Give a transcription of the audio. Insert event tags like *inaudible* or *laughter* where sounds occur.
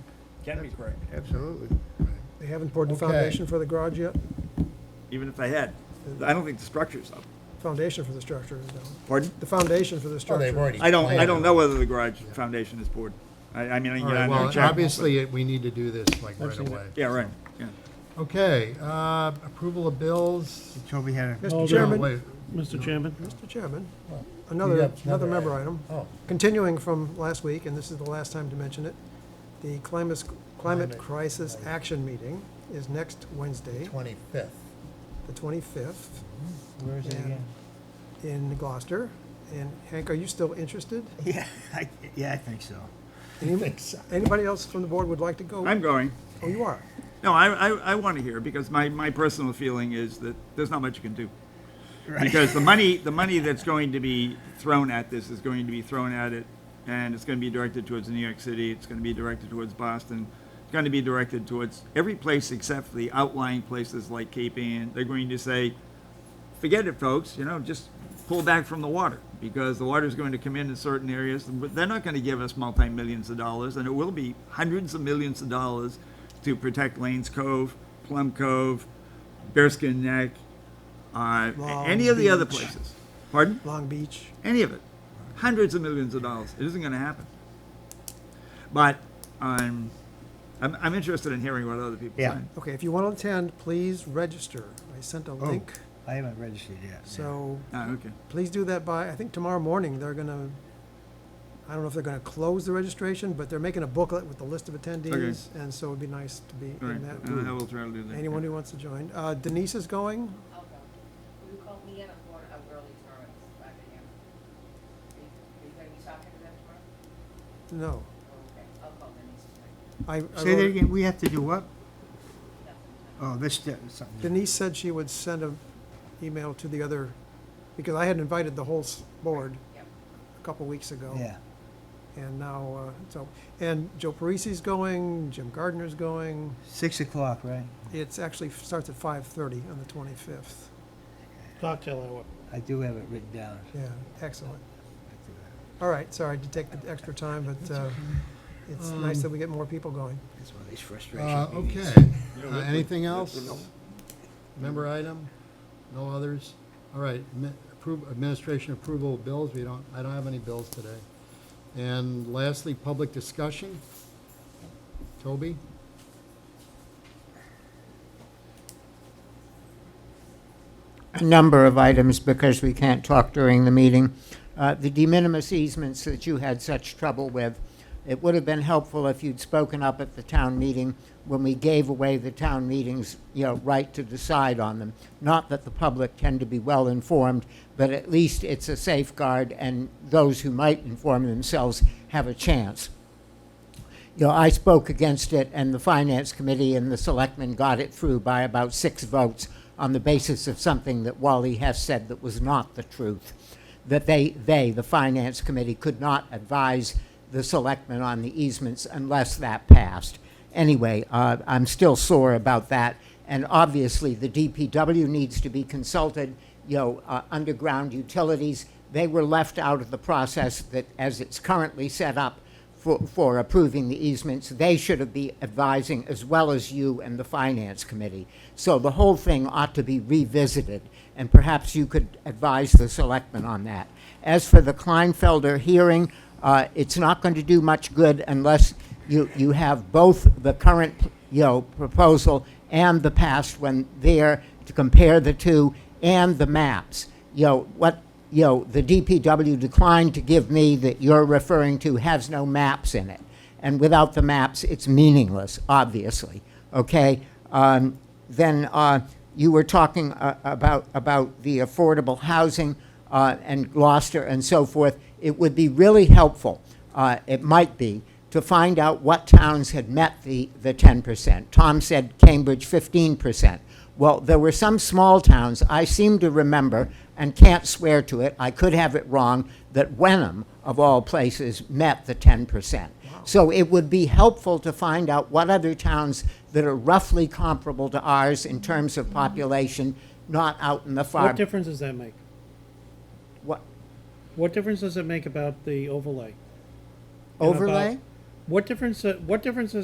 can be correct, Absolutely. They haven't poured the Okay. foundation for the garage yet? even if they had. I don't think the structure's up. Foundation for the structure is down. Pardon? The foundation for the Oh, they've structure. already. I don't, I don't planned. know whether the garage foundation is poured. I, I mean, I can get All right, on there and well, check. but- obviously, we need to do this like right away. Yeah, right, yeah. Okay, uh, approval of bills. So we had a, Mr. Hold No, Chairman, Oh, wait. Mr. Chairman, Mr. Chairman, Well, You another, got another member item. Oh, Continuing from last week, and this is the last time to mention it, the Climate, Climate Climate Crisis Crisis. Action Meeting is next Wednesday, twenty-fifth. the 25th, where is it Yeah. again? in Gloucester. And Hank, are you still interested? *laughs* Yeah, I, yeah, I think so. Any- Anybody else from the board would like to go? I'm going. Oh, you are? No, I, I, I want to hear, because my, my personal feeling is that there's not much you can do. Because the money, the money that's going to be thrown at this is going to be thrown at it, and it's going to be directed towards New York City, it's going to be directed towards Boston, it's going to be directed towards every place except for the outlying places like Cape Ann. They're going to say, forget it, folks, you know, just pull back from the water, because the water's going to come in in certain areas, but they're not gonna give us multi-millions of dollars, and it will be hundreds of millions of dollars to protect Lanes Cove, Plum Cove, Bearskin Neck, uh, Long any of the other Beach. places. Pardon? Long Beach. Any of it. Hundreds of millions of dollars. It isn't gonna happen. But, um, I'm, I'm interested in hearing what other people Yeah. say. Okay, if you want to attend, please register. I sent Oh. a Oh. link, I haven't registered yet. so Ah, okay. please do that by, I think tomorrow morning, they're gonna, I don't know if they're gonna close the registration, but they're making a booklet with the list of attendees, and so it'd be nice to be All right, in that I group. will try to do that. Anyone who wants to join. Uh, Denise is going? I'll go. Will you call me at a quarter of uh, early tomorrow at five AM? Are you, are you gonna be talking to them tomorrow? No. Oh, Okay, I'll call Denise tonight. I, I Say that wrote- again, we have to do what? Nothing tonight. Oh, this, something. Denise said she would send an email to the other, because I had invited the whole s- board Yep. a couple weeks ago. Yeah, And now, uh, so, and Joe Parisi's going, Jim Gardner's going. six o'clock, right? It's actually f- starts at five thirty on the twenty-fifth. cocktail hour. I do have it written down. Yeah, excellent. All right, sorry to take the extra time, but uh, it's nice that we get more people going. That's one of these Uh, frustrations. okay, Uh, anything else? Member item? No others? All right, admi- approve, administration approval of bills, we don't, I don't have any bills today. And lastly, public discussion. Toby? a number of items because we can't talk during the meeting. Uh, The de minimis easements that you had such trouble with, it would have been helpful if you'd spoken up at the town meeting when we gave away the town meeting's, you know, right to decide on them. Not that the public tend to be well-informed, but at least it's a safeguard, and those who might inform themselves have a chance you know, I spoke against it, and the Finance Committee and the Selectmen got it through by about six votes on the basis of something that Wally Hess said that was not the truth, that they, they, the Finance Committee, could not advise the Selectmen on the easements unless that passed. Anyway, uh, I'm still sore about that, and obviously, the DPW needs to be consulted, you know, uh, underground utilities, they were left out of the process that, as it's currently set up, for, for approving the easements, they should have be advising as well as you and the finance committee. So the whole thing ought to be revisited, and perhaps you could advise the selectmen on that. As for the Kleinfelder hearing, uh, it's not going to do much good unless you, you have both the current, you know, proposal and the past one there to compare the two, and the maps. You know, what, you know, the DPW declined to give me that you're referring to has no maps in it. And without the maps, it's meaningless, obviously, okay? Um, then, uh, you were talking, uh, about, about the affordable housing, uh, and Gloucester and so forth. It would be really helpful, uh, it might be, to find out what towns had met the, the ten percent. Tom said Cambridge fifteen percent. Well, there were some small towns, I seem to remember, and can't swear to it, I could have it wrong, that Wenham, of all places, met the ten percent. So it would be helpful to find out what other towns that are roughly comparable to ours in terms of population, not out in the far. What difference does that make? What, What difference does it make about the overlay? And about- overlay? What difference, what difference does